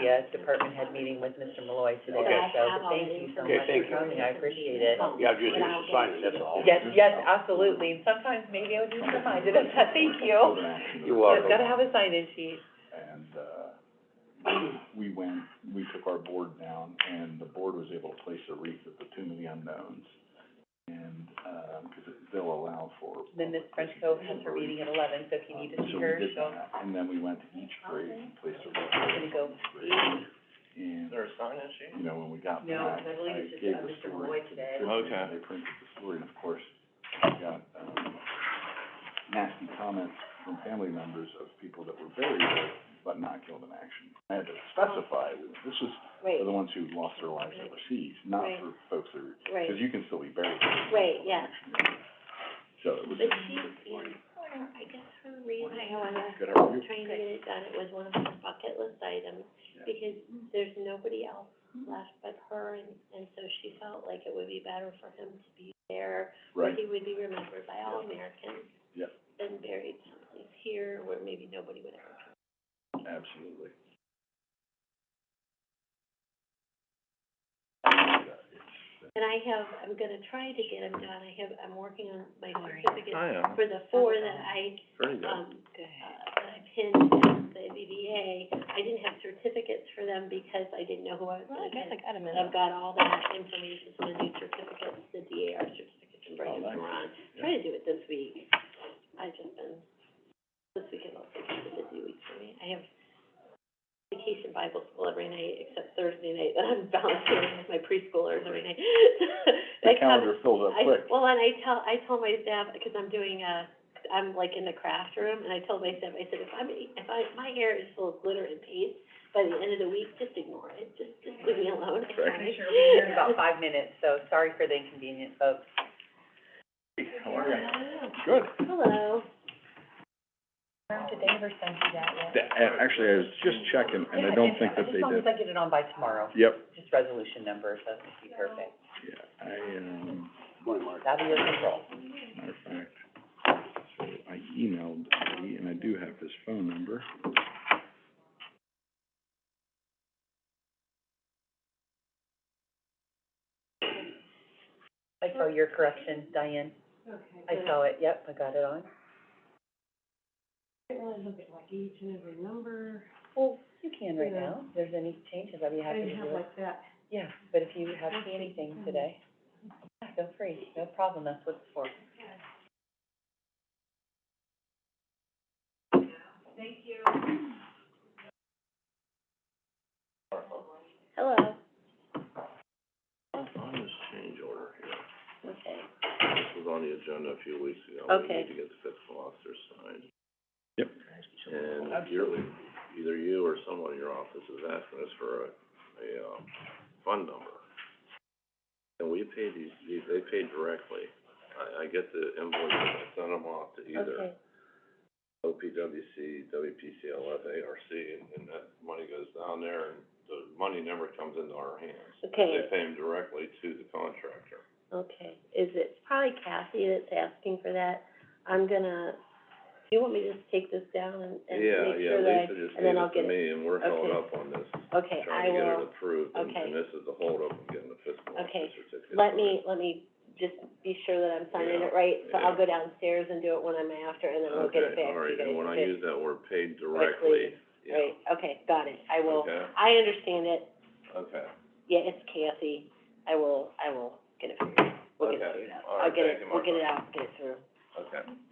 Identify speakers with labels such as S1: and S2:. S1: the uh, department head meeting with Mr. Malloy today,
S2: Okay.
S1: so thank you so
S3: Okay,
S1: much
S3: thank
S1: for
S3: you.
S1: coming, I appreciate it.
S3: Yeah, just use the sign, that's all.
S1: Yes, yes, absolutely, and sometimes maybe I'll just remind it, thank you.
S3: You're
S1: I've gotta
S3: welcome.
S1: have a sign-in sheet.
S4: And, uh, we went, we took our board down, and the board was able to place a wreath at the Tomb of the Unknowns. And, um 'cause it- they'll allow for.
S1: Then Ms. French Cove has her meeting at eleven, so if you need to see
S4: So we
S1: her,
S4: did
S1: she'll,
S4: that, And then we went to each grave and placed a wreath.
S1: I'm gonna go,
S4: And,
S3: a sign in
S4: you know, when we got
S1: No,
S4: back,
S1: I believe it's
S4: I
S1: just,
S4: gave
S1: uh,
S4: the
S1: Mr.
S4: story
S1: Malloy
S4: to the
S1: today.
S4: Tribune,
S3: Okay.
S4: and They printed the story, and of course, we got, um, nasty comments from family members of people that were buried but not killed in action. I had to specify, this was
S2: Right,
S4: for the ones who lost their lives overseas, not
S2: Right.
S4: for folks that are,
S2: right,
S4: because you can still be buried.
S2: right, yeah.
S4: So
S2: But
S4: it was,
S2: she, yeah, I guess her reason I wanna,
S4: good argument.
S2: trying to get it done, it was one of her bucket list items, because there's nobody else left but her, and, and so she felt like it would be better for him to be there, where
S4: right,
S2: he would be remembered by all Americans.
S4: Yeah.
S2: Than buried someplace here, where maybe nobody would ever come.
S4: absolutely.
S2: And I have, I'm gonna try to get them done, I have, I'm working on my
S1: Sorry.
S2: certificate
S3: yeah,
S2: for the four that I
S3: very
S2: um, uh, that I pinned in the BBA, I didn't have certificates for them because I didn't know who I was gonna pin.
S1: got a
S2: But I've got all that information, so the new certificates, the DAR certificates, and bring
S4: Oh,
S2: them
S4: nice.
S2: to Ron. Try to do it this week. I've just been, this weekend was such a busy week for me. I have vacation Bible school every night except Thursday night, that I'm volunteering with my preschoolers every night.
S4: The
S2: I come-
S4: calendar fills up
S2: I,
S4: quick.
S2: well, and I tell, I told my staff, because I'm doing a, I'm like in the craft room, and I told my staff, I said, if I'm, if I, my hair is full of glitter and paste, by the end of the week, just ignore it, just, just leave me alone, it's fine.
S1: Pretty sure we're here in about five minutes, so sorry for the inconvenience, folks.
S4: How are you? Good.
S2: Hello.
S1: Did they ever send you that yet?
S4: uh, actually, I was just checking, and I don't think that they
S1: As long as
S4: did.
S1: I get it on by tomorrow,
S4: Yep,
S1: just resolution number, so that'd be perfect.
S4: yeah, I, um,
S1: That'd be your control.
S4: matter of fact, so I emailed Eddie, and I do have his phone number.
S1: I saw your correction, Diane. I saw it, yep, I got it on. Well, you can right now, if there's any changes, I'd be happy to do it. Yeah, but if you have seen anything today, yeah, feel free, no problem, that's what it's for.
S2: Hello.
S3: On this change order here,
S2: Okay.
S3: this was on the agenda a few weeks ago.
S2: Okay.
S3: We need to get the fiscal officer signed.
S4: Yep.
S3: And yearly, either you or someone in your office is asking us for a, a, um, fund number. And we pay these, these, they pay directly. I, I get the invoices, I send them off to either
S2: Okay,
S3: OPWC, WPCLF, ARC, and, and that money goes down there, and the money never comes into our hands. They
S2: okay,
S3: pay them directly to the contractor.
S2: okay. Is it, it's probably Kathy that's asking for that. I'm gonna, do you want me to just take this down and, and
S3: Yeah,
S2: make
S3: yeah,
S2: sure that,
S3: Lisa just
S2: I- and
S3: gave
S2: then
S3: it
S2: I'll
S3: to
S2: get it?
S3: me, and we're held
S2: Okay.
S3: up on this,
S2: Okay, I
S3: trying to get it
S2: will,
S3: approved, and,
S2: Okay.
S3: and this is the holdup in getting the fiscal
S2: Okay.
S3: officer certificate.
S2: let me, let me just be sure that I'm signing it right, so I'll
S3: Yeah,
S2: go downstairs and do it when I'm after, and then I'll get it back to you guys.
S3: Okay, all right, and when I
S2: okay?
S3: use that word paid
S2: Directly,
S3: directly,
S2: Right,
S3: yeah,
S2: okay, got it, I will,
S3: okay,
S2: I understand it,
S3: okay,
S2: yeah, it's Kathy, I will, I will get it figured, out. we'll get it
S3: Okay,
S2: figured out.
S3: all right,
S2: I'll get it,
S3: thank you,
S2: we'll get it
S3: Martha.
S2: out, get it through.
S3: okay.